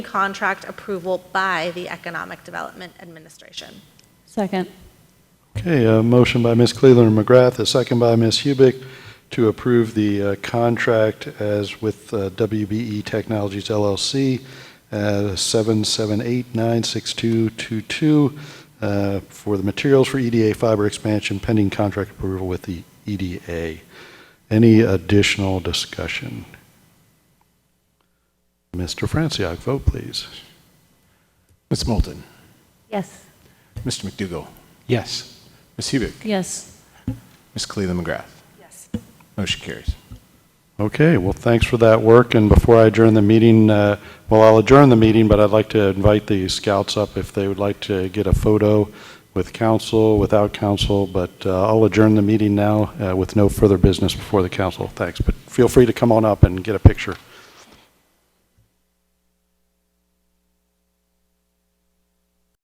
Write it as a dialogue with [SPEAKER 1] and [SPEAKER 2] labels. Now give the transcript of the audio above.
[SPEAKER 1] contract approval by the Economic Development Administration.
[SPEAKER 2] Second.
[SPEAKER 3] Okay, a motion by Ms. Cleveland McGrath, a second by Ms. Hubick to approve the uh, contract as with uh, WBE Technologies LLC at 778-96222 uh, for the materials for EDA fiber expansion pending contract approval with the EDA. Any additional discussion? Mr. Franciac, vote please.
[SPEAKER 4] Ms. Moulton,
[SPEAKER 2] Yes.
[SPEAKER 4] Mr. McDougall? Yes. Ms. Hubick?
[SPEAKER 2] Yes.
[SPEAKER 4] Ms. Cleveland McGrath?
[SPEAKER 1] Yes.
[SPEAKER 4] Motion carries.
[SPEAKER 3] Okay, well, thanks for that work, and before I adjourn the meeting, uh, well, I'll adjourn the meeting, but I'd like to invite the scouts up if they would like to get a photo with council, without council, but uh, I'll adjourn the meeting now uh, with no further business before the council, thanks, but feel free to come on up and get a picture.